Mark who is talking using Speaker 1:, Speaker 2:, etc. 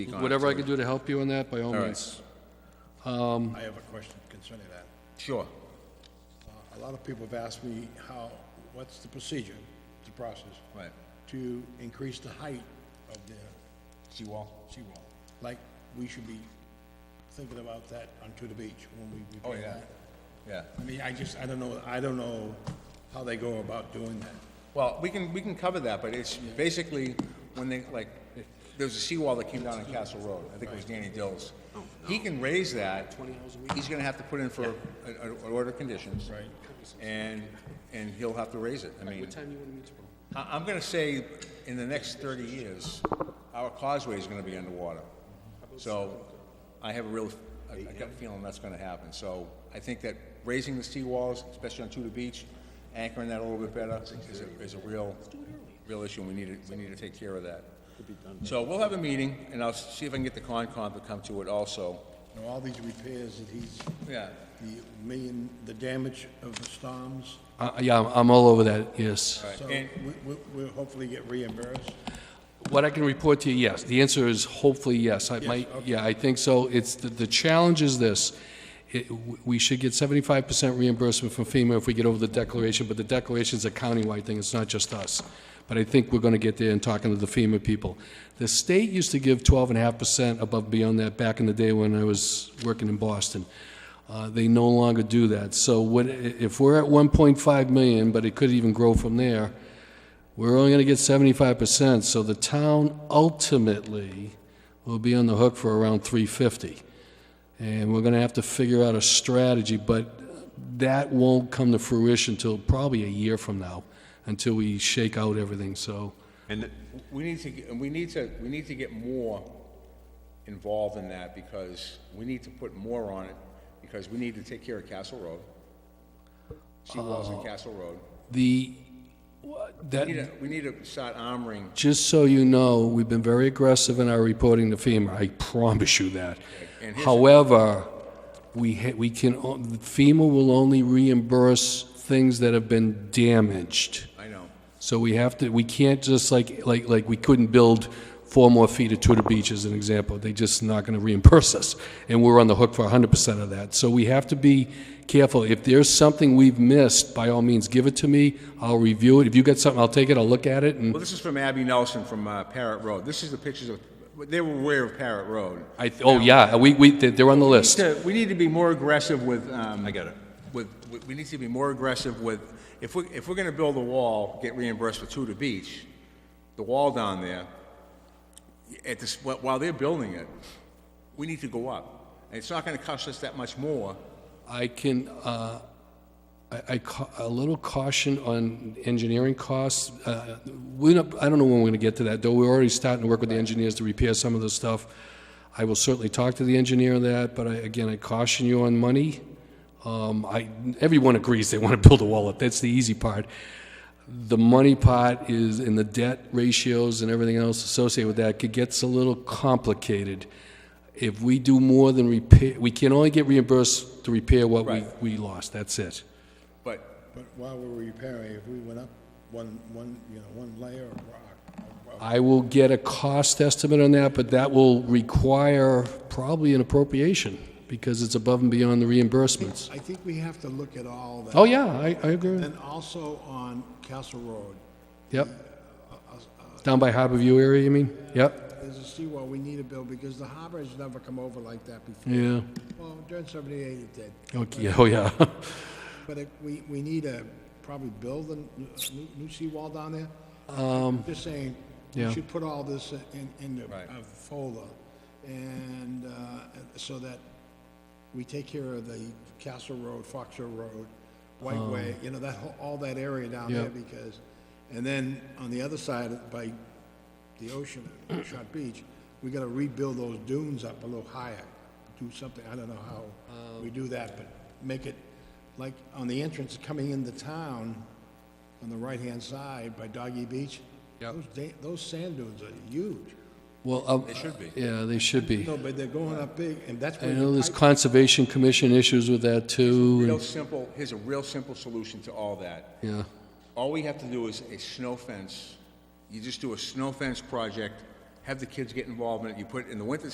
Speaker 1: speak on it,
Speaker 2: Whatever I
Speaker 1: so-
Speaker 2: can do to help you on that, by all
Speaker 1: All right.
Speaker 2: means.
Speaker 3: I have a question concerning that. Uh,
Speaker 1: Sure.
Speaker 3: A lot of people have asked me how, what's the procedure, the process?
Speaker 1: Right.
Speaker 3: To increase the height of the
Speaker 1: Seawall?
Speaker 3: seawall. Like, we should be thinking about that onto the beach when we
Speaker 1: Oh,
Speaker 3: repair
Speaker 1: yeah.
Speaker 3: that.
Speaker 1: Yeah.
Speaker 3: I mean, I just, I don't know, I don't know how they go about doing that.
Speaker 1: Well, we can, we can cover that, but it's basically when they, like, there was a seawall that came down on Castle Road. I think it was Danny Dills.
Speaker 2: Oh,
Speaker 1: He can raise that. He's gonna have to put in for a- a- an order of conditions. Right. And, and he'll have to raise it. I mean,
Speaker 2: What time you want to meet tomorrow?
Speaker 1: I, I'm gonna say in the next thirty years, our causeway is gonna be underwater. So I have a real, I I got a feeling that's gonna happen. So I think that raising the seawalls, especially on Tudor Beach, anchoring that a little bit better is a, is a real, real issue and we need to, we need to take care of that. So we'll have a meeting and I'll see if I can get the Concom to come to it also.
Speaker 3: You know, all these repairs that he's,
Speaker 1: Yeah,
Speaker 3: the million, the damage of the storms,
Speaker 2: Uh, yeah, I'm- I'm all over that, yes.
Speaker 1: all right.
Speaker 3: so
Speaker 1: And-
Speaker 3: we, we, we'll hopefully get reimbursed.
Speaker 2: What I can report to you, yes. The answer is hopefully yes. I might, yeah, I think so. It's, the, the challenge is this. It, w- we should get seventy-five percent reimbursement from FEMA if we get over the declaration, but the declaration's a countywide thing, it's not just us. But I think we're gonna get there and talking to the FEMA people. The state used to give twelve and a half percent above and beyond that back in the day when I was working in Boston. Uh, They no longer do that. So what, i- if we're at 1.5 million, but it could even grow from there, we're only going to get 75%, so the town ultimately will be on the hook for around 350. And we're going to have to figure out a strategy, but that won't come to fruition till probably a year from now, until we shake out everything, so.
Speaker 1: And we need to, get- and we need to, we need to get more involved in that because we need to put more on it because we need to take care of Castle Road. Seawalls in Castle Road.
Speaker 2: The,
Speaker 1: We need
Speaker 2: that,
Speaker 1: to, we need to start armoring.
Speaker 2: just so you know, we've been very aggressive in our reporting to FEMA, I promise you that.
Speaker 1: And here's-
Speaker 2: However, we, ha- we can, o- FEMA will only reimburse things that have been damaged.
Speaker 1: I know.
Speaker 2: So we have to, we can't just like, like, like, we couldn't build four more feet of Tudor Beach as an example. They just not gonna reimburse us, and we're on the hook for hundred percent of that. So we have to be careful. If there's something we've missed, by all means, give it to me. I'll review it. If you got something, I'll take it, I'll look at it,
Speaker 1: Well,
Speaker 2: and
Speaker 1: this is from Abby Nelson from uh, Parrot Road. This is the pictures of, they were aware of Parrot Road.
Speaker 2: I, th- oh, yeah, we, we, they're they're on the list.
Speaker 1: to- we need to be more aggressive with, um... I get it. With, with- we need to be more aggressive with, if we, if we're gonna build a wall, get reimbursed for Tudor Beach, the wall down there, at this, while while they're building it, we need to go up. And it's not gonna cost us that much more.
Speaker 2: I can, uh, I, I ca- a little caution on engineering costs. Uh, We, don't- I don't know when we're going to get to that, though we're already starting to work with the engineers to repair some of the stuff. I will certainly talk to the engineer on that, but I, again, I caution you on money. Um, I, everyone agrees they want to build a wall up, that's the easy part. The money part is, and the debt ratios and everything else associated with that, it gets a little complicated. If we do more than repair, we can only get reimbursed to repair what we,
Speaker 1: Right.
Speaker 2: we lost, that's it.
Speaker 1: But,
Speaker 3: But while we're repairing, if we went up one, one, you know, one layer of rock, of- of
Speaker 2: I will get a cost estimate on that, but that will require probably an appropriation, because it's above and beyond the reimbursements.
Speaker 3: I think we have to look at all that.
Speaker 2: Oh, yeah, I, I agree, with-
Speaker 3: And also on Castle Road,
Speaker 2: yep. Down by Harbor View area, you mean? Yep,
Speaker 3: there's a seawall we need to build because the harbor has never come over like that before.
Speaker 2: yeah,
Speaker 3: Well, during seventy-eight it did,
Speaker 2: okay, oh, yeah.
Speaker 3: but it, we, we need to probably build a new, new seawall down there. Um. Just saying,
Speaker 2: yeah.
Speaker 3: we should put all this in, in the
Speaker 1: Right.
Speaker 3: a folder and, uh, so that we take care of the Castle Road, Fox Hill Road, White
Speaker 2: Um,
Speaker 3: Way, you know, that whole, all that area down
Speaker 2: Yeah.
Speaker 3: there because, and then on the other side by the ocean, at Shot Beach, we gotta rebuild those dunes up a little higher, do something, I don't know how we do that, but make it, like, on the entrance coming into town, on the right-hand side by Doggy Beach,
Speaker 2: Yep.
Speaker 3: those, da- those sand dunes are huge.
Speaker 2: Well, um. They
Speaker 1: should be.
Speaker 2: Yeah, they should be.
Speaker 3: No, but they're going up big, and that's
Speaker 2: I
Speaker 3: where.
Speaker 2: know there's
Speaker 3: I-
Speaker 2: Conservation Commission issues with that, too,
Speaker 1: real simple, here's a real simple solution to all that.
Speaker 2: and, yeah.
Speaker 1: All we have to do is a snow fence. You just do a snow fence project have the kids get involved in it. You put, in the winter